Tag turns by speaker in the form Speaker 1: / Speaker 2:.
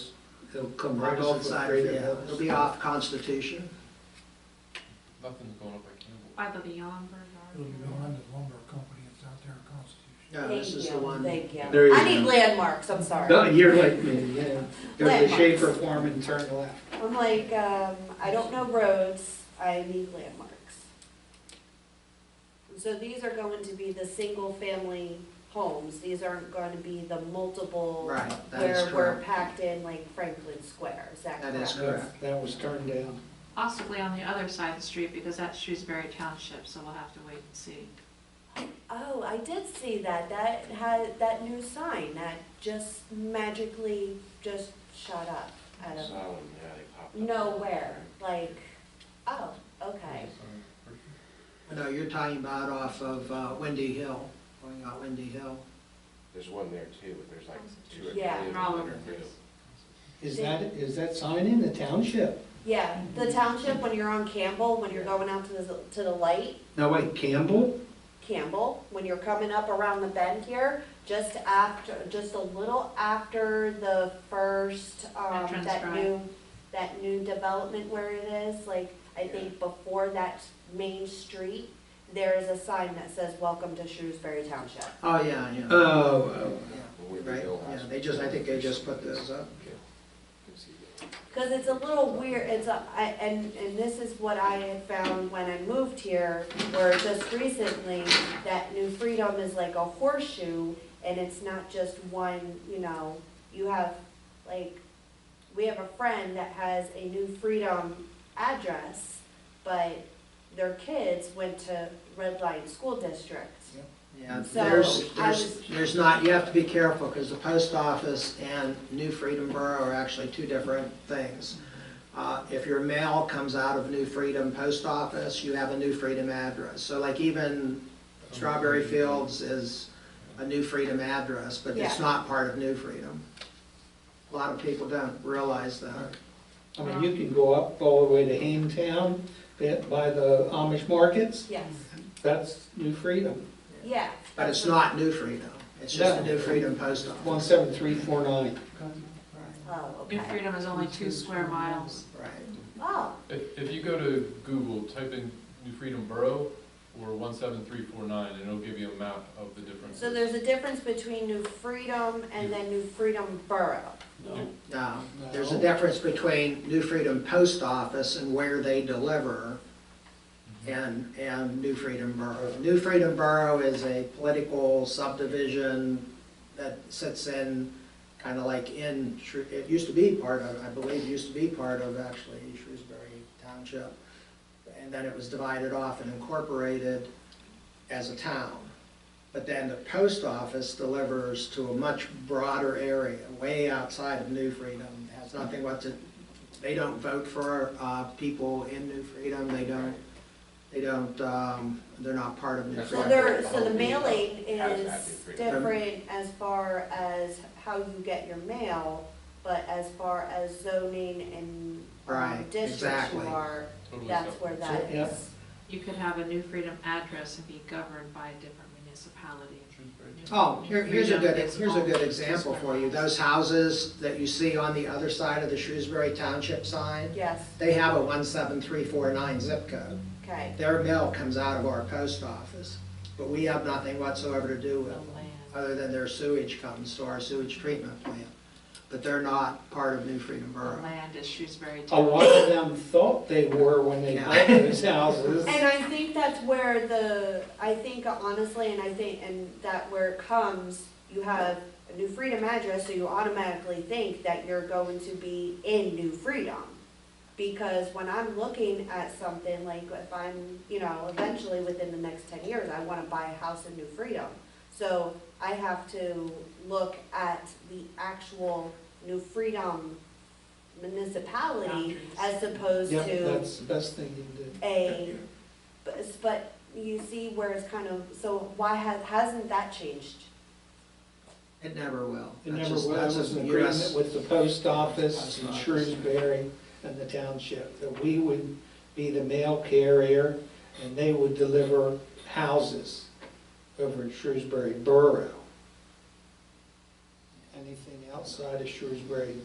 Speaker 1: It'll come right off of
Speaker 2: Opposite side,
Speaker 1: Greater
Speaker 2: yeah, It'll
Speaker 1: Mills.
Speaker 2: be off Constitution.
Speaker 3: Nothing's going up by Campbell.
Speaker 4: By the Beyond Burger.
Speaker 5: It'll be behind the lumber company that's out there in Constitution.
Speaker 2: No,
Speaker 6: Thank
Speaker 2: this is the
Speaker 6: you,
Speaker 2: one.
Speaker 6: thank you.
Speaker 1: There you
Speaker 6: I need
Speaker 1: go.
Speaker 6: landmarks, I'm sorry.
Speaker 1: No, you're like me, yeah. Go to
Speaker 6: Landmarks.
Speaker 1: Schaefer Farm and turn left.
Speaker 6: I'm like, um, I don't know roads, I need landmarks. And So these are going to be the single-family homes, these aren't going to be the multiple.
Speaker 2: Right, that is
Speaker 6: Where we're
Speaker 2: correct.
Speaker 6: packed in like Franklin Square, is that
Speaker 2: That
Speaker 6: correct?
Speaker 2: is correct.
Speaker 1: That was turned down.
Speaker 4: Possibly on the other side of the street, because that's Shrewsbury Township, so we'll have to wait and see.
Speaker 6: Oh, I did see that, that had, that new sign that just magically just shot up out of
Speaker 7: Oh,
Speaker 6: nowhere, like, oh, okay.
Speaker 2: No, you're talking about off of uh, Windy Hill, going out Windy Hill.
Speaker 7: There's one there too, but there's like two or three.
Speaker 6: Yeah,
Speaker 7: of them
Speaker 4: all
Speaker 7: in
Speaker 4: over
Speaker 7: there,
Speaker 4: the
Speaker 7: too.
Speaker 4: place.
Speaker 1: Is that, is that sign in the township?
Speaker 6: Yeah, the township, when you're on Campbell, when you're going out to the, to the light,
Speaker 1: No, wait, Campbell?
Speaker 6: Campbell, when you're coming up around the bend here, just after, just a little after the first, um,
Speaker 4: Entrance
Speaker 6: that
Speaker 4: drive.
Speaker 6: new, that new development where it is, like, I think before that main street, there is a sign that says, welcome to Shrewsbury Township.
Speaker 2: Oh, yeah, yeah.
Speaker 1: Oh,
Speaker 2: Yeah,
Speaker 7: When we were
Speaker 2: Right,
Speaker 7: built last-
Speaker 2: yeah, they just, I think they just put those up.
Speaker 7: Yeah. Can see that.
Speaker 6: Because it's a little weird, it's a, I, and, and this is what I had found when I moved here, or just recently, that New Freedom is like a horseshoe, and it's not just one, you know, you have, like, we have a friend that has a New Freedom address, but their kids went to Red Line School District.
Speaker 2: Yeah,
Speaker 6: So,
Speaker 2: there's,
Speaker 6: I
Speaker 2: there's,
Speaker 6: was-
Speaker 2: there's not, you have to be careful, because the post office and New Freedom Borough are actually two different things. Uh, If your mail comes out of New Freedom Post Office, you have a New Freedom address. So like even Strawberry Fields is a New Freedom address, but it's
Speaker 6: Yeah.
Speaker 2: not part of New Freedom. A lot of people don't realize that.
Speaker 1: I mean, you can go up all the way to Hametown, bit by the Amish markets,
Speaker 6: Yes,
Speaker 1: that's New Freedom,
Speaker 6: yeah.
Speaker 2: But it's not New Freedom, it's just the New Freedom Post
Speaker 1: one
Speaker 2: Office.
Speaker 1: seven three four nine.
Speaker 6: Oh,
Speaker 4: New
Speaker 6: okay.
Speaker 4: Freedom is only two square miles.
Speaker 2: Right,
Speaker 6: Oh,
Speaker 3: If, if you go to Google, type in New Freedom Borough or one seven three four nine, and it'll give you a map of the different.
Speaker 6: so there's a difference between New Freedom and then New Freedom Borough.
Speaker 2: now, um, there's a difference between New Freedom Post Office and where they deliver and, and New Freedom Borough. New Freedom Borough is a political subdivision that sits in, kind of like in, Shrew- it used to be part of, I believe, it used to be part of actually Shrewsbury Township. And then it was divided off and incorporated as a town. But then the post office delivers to a much broader area, way outside of New Freedom. Has nothing what to, they don't vote for, uh, people in New Freedom, they don't, they don't, um, they're not part of New
Speaker 7: That's
Speaker 6: So
Speaker 7: why-
Speaker 2: Freedom.
Speaker 6: there, so the mailing
Speaker 7: How does that
Speaker 6: is
Speaker 7: differ?
Speaker 6: different as far as how you get your mail, but as far as zoning and um,
Speaker 2: Right,
Speaker 6: districts you
Speaker 2: exactly.
Speaker 6: are,
Speaker 3: Totally
Speaker 6: that's
Speaker 3: separate.
Speaker 6: where that
Speaker 1: Yeah.
Speaker 6: is.
Speaker 4: You could have a New Freedom address and be governed by a different municipality.
Speaker 3: Shrewsbury.
Speaker 2: Oh, here, here's a good, here's a good
Speaker 4: Freedom is
Speaker 2: example
Speaker 4: all-
Speaker 2: for you. Those houses that you see on the other side of the Shrewsbury Township sign,
Speaker 6: Yes,
Speaker 2: they have a one seven three four nine zip code.
Speaker 6: okay,
Speaker 2: Their mail comes out of our post office, but we have nothing whatsoever to do
Speaker 4: The
Speaker 2: with them.
Speaker 4: land.
Speaker 2: other than their sewage comes to our sewage treatment plant. But they're not part of New Freedom
Speaker 4: The
Speaker 2: Borough.
Speaker 4: land is Shrewsbury
Speaker 1: A
Speaker 4: Township.
Speaker 1: lot of them thought they were when they bought those houses.
Speaker 6: and I think that's where the, I think honestly, and I think, and that where it comes, you have a New Freedom address, so you automatically think that you're going to be in New Freedom. Because when I'm looking at something, like if I'm, you know, eventually within the next ten years, I wanna buy a house in New Freedom. So I have to look at the actual New Freedom municipality
Speaker 4: Boundaries.
Speaker 6: as opposed
Speaker 1: Yeah,
Speaker 6: to
Speaker 1: that's the best thing you can do.
Speaker 6: a, but, it's- but you see where it's kind of, so why has, hasn't that changed?
Speaker 2: It never will.
Speaker 1: It
Speaker 2: That's
Speaker 1: never
Speaker 2: just-
Speaker 1: was,
Speaker 2: that's
Speaker 1: That was
Speaker 2: just
Speaker 1: an
Speaker 2: the US
Speaker 1: agreement with the post office in Shrewsbury and the township, that we would be the mail carrier and they would deliver houses over in Shrewsbury Borough. Anything outside of Shrewsbury